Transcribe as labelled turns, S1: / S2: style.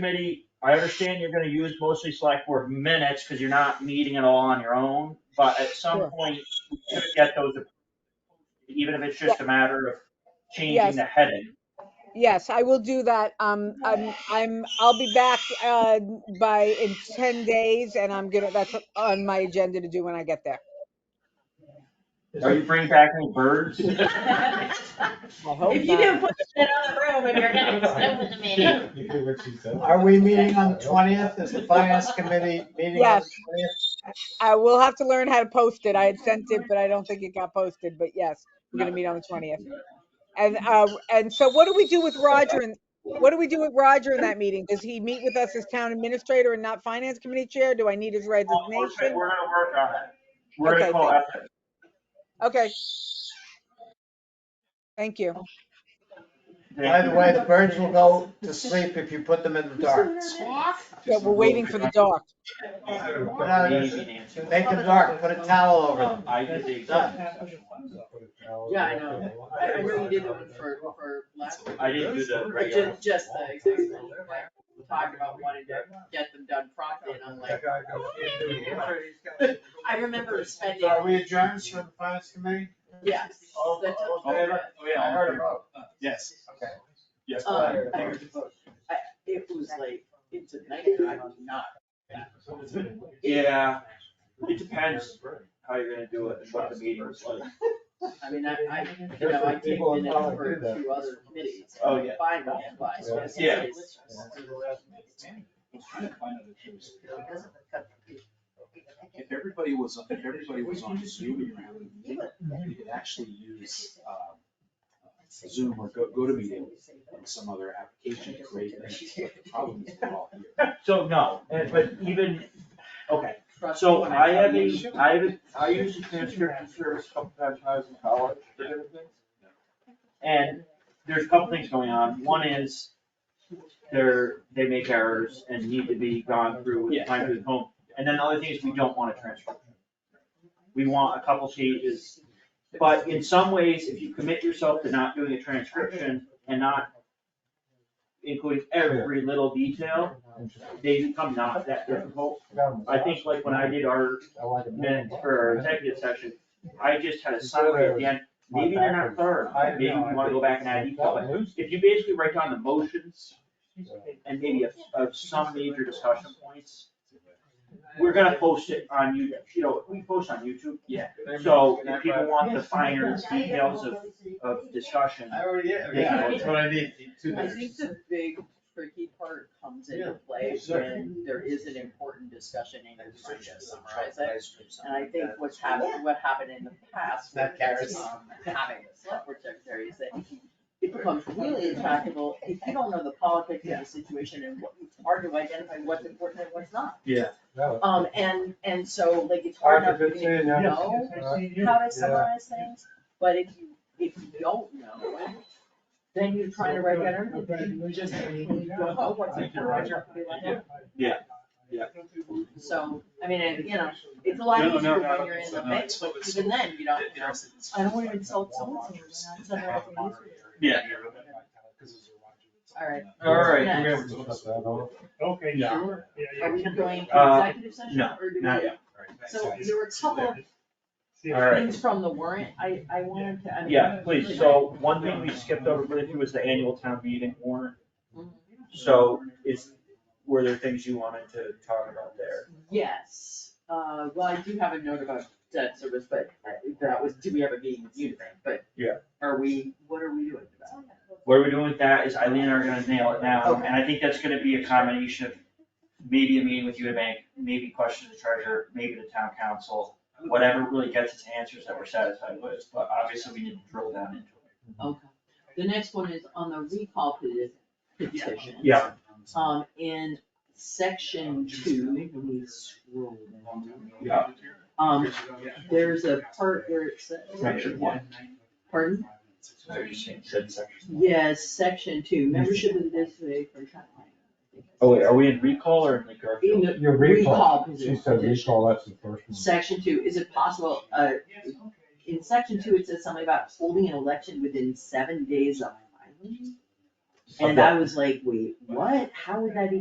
S1: committee, I understand you're gonna use mostly select board minutes, cause you're not meeting it all on your own, but at some
S2: Sure.
S1: point, you should get those, approved, even if it's just a matter of changing
S2: Yes.
S1: the heading.
S2: Yes, I will do that. Um, I'm, I'm, I'll be back, uh, by in ten days and I'm gonna, that's on my agenda to do when I get there.
S1: Are you bringing back any birds?
S2: I hope
S3: If you
S2: not.
S3: can put the shit on the room and you're gonna extend the meeting.
S4: You hear what she said?
S5: Are we meeting on the twentieth? Is the finance committee meeting on the
S2: Yes.
S5: twentieth?
S2: I will have to learn how to post it. I had sent it, but I don't think it got posted, but yes, we're gonna meet on the twentieth. And, uh, and so what do we do with Roger and, what do we do with Roger in that meeting? Does he meet with us as town administrator and not finance committee chair? Do I need his
S1: Well, We're gonna
S2: resignation?
S1: work on it. We're gonna
S2: Okay,
S1: call
S2: thanks.
S1: ethics.
S2: Okay. Thank you.
S5: By the way, the birds will go to sleep if you put them in the dark.
S2: Yeah, we're waiting for the dog.
S5: Now,
S1: Easy, Nancy.
S5: Make them dark, put a towel over them.
S1: I did the exact,
S5: Done.
S3: Yeah, I know. I, I know you did the
S6: uh,
S3: one for, for last,
S1: I didn't do the
S3: but
S1: regular.
S3: just, just the executive, like, we talked about wanting to get them done promptly and I'm like. I remember spending,
S5: Are we adjourned for the finance committee?
S3: yes. that took-
S1: Oh, yeah,
S5: I heard a vote.
S4: Yes.
S5: Okay.
S4: Yes.
S3: Um,
S4: but-
S3: It was like, it's a nightmare, I was not,
S1: Yeah, it depends how you're gonna do it and what the meeting was like.
S3: I mean, I, I, you know, I take
S4: People in
S3: minutes
S4: power
S3: for
S4: do that.
S3: two other committees.
S1: Oh, yeah.
S3: Fine, but it's just-
S1: Yeah.
S3: it's- it doesn't cut the-
S6: If everybody was, if everybody was on Zoom around, you could actually use um, Zoom or Go, GoToMeeting and some other application to create things, but the problem is we're all here.
S1: So, no, and- but even, okay,
S3: Trust
S1: so
S3: me when
S1: I have
S3: tell you.
S1: a, I have a, I used a transcription service a couple times when I was in college for different things. And there's a couple things going on. One is they're, they make errors and need to be gone through with
S6: Yeah.
S1: time to the home. And then the other thing is we don't want a transcription. We want a couple pages, but in some ways, if you commit yourself to not doing a transcription and not including every little detail, they become not that difficult. I think like when I did our minutes for our executive session, I just had a summary at the end, maybe they're not thorough, maybe you wanna go back and add detail, but if you basically write down the motions and maybe of, of some major discussion points, we're gonna post it on YouTube, you know, we post on YouTube.
S6: Yeah.
S1: So if people want the finer details of, of discussion,
S4: I already, yeah,
S1: Yeah.
S4: that's what I need. two
S3: I
S4: minutes.
S3: think the big tricky part comes into
S4: Yeah,
S3: play
S4: sure.
S3: when there is an important discussion and you're trying to summarize it. And I think what's happened, what happened in the past,
S4: That
S3: with
S4: carries.
S3: um, having a select board secretary is that it becomes really intractable if you don't know the politics of the situation and what, it's hard to identify what's important and what's not.
S4: No.
S3: Um, and, and so like it's hard enough
S4: Hard to
S3: for me
S4: fit
S3: to
S4: in, yeah.
S3: know how to summarize things, but if you, if you don't know, it, then you're trying to write better, you just, you don't know what's important, you're like, "Oh." So, I mean, and, you know, it's a lot
S6: No, no,
S3: easier
S6: no,
S3: when you're in
S6: so
S3: the
S6: no,
S3: mix,
S6: it's-
S3: but even then, you don't. I don't want to insult someone,
S6: someone.
S3: so I'm sending out the news.
S1: Yeah.
S3: All right.
S1: All right.
S3: Next.
S7: Okay,
S4: Yeah.
S7: sure. Yeah, yeah.
S3: Are we going to
S1: Uh,
S3: executive session
S1: no,
S3: or do we?
S1: not yet.
S3: So there were a couple of
S7: See,
S1: All right.
S3: things from the warrant, I, I wanted to, I mean.
S1: Yeah, please, so one thing we skipped over briefly was the annual town meeting warrant. So is, were there things you wanted to talk about there?
S3: Yes, uh, well, I do have a note about debt service, but uh, that was, do we have a meeting with Unibank, but.
S1: Yeah.
S3: Are we, what are we doing about it?
S1: What we're doing with that is Eileen and I are gonna nail it now, and I think that's gonna be a combination of maybe a meeting with Unibank, maybe questions to the treasurer, maybe the town council, whatever really gets us answers that we're satisfied with, but obviously we need to drill down into it.
S3: Okay, the next one is on the recall peti- petition.
S1: Yeah.
S3: Um, in
S6: Oh,
S3: section two, let me scroll down.
S1: Yeah.
S3: Um, there's a part where it says.
S1: Section one.
S3: Pardon?
S1: So you said- said section.
S3: Yes, section two, membership of the district for town.
S1: Oh wait, are we in recall or in the
S3: In
S1: Garfield?
S3: the
S4: Your
S3: recall position.
S4: She said recall, that's the first one.
S3: Section two, is it possible, uh, in section two, it says something about holding an election within seven days of filing? And I was like, wait, what? How would that even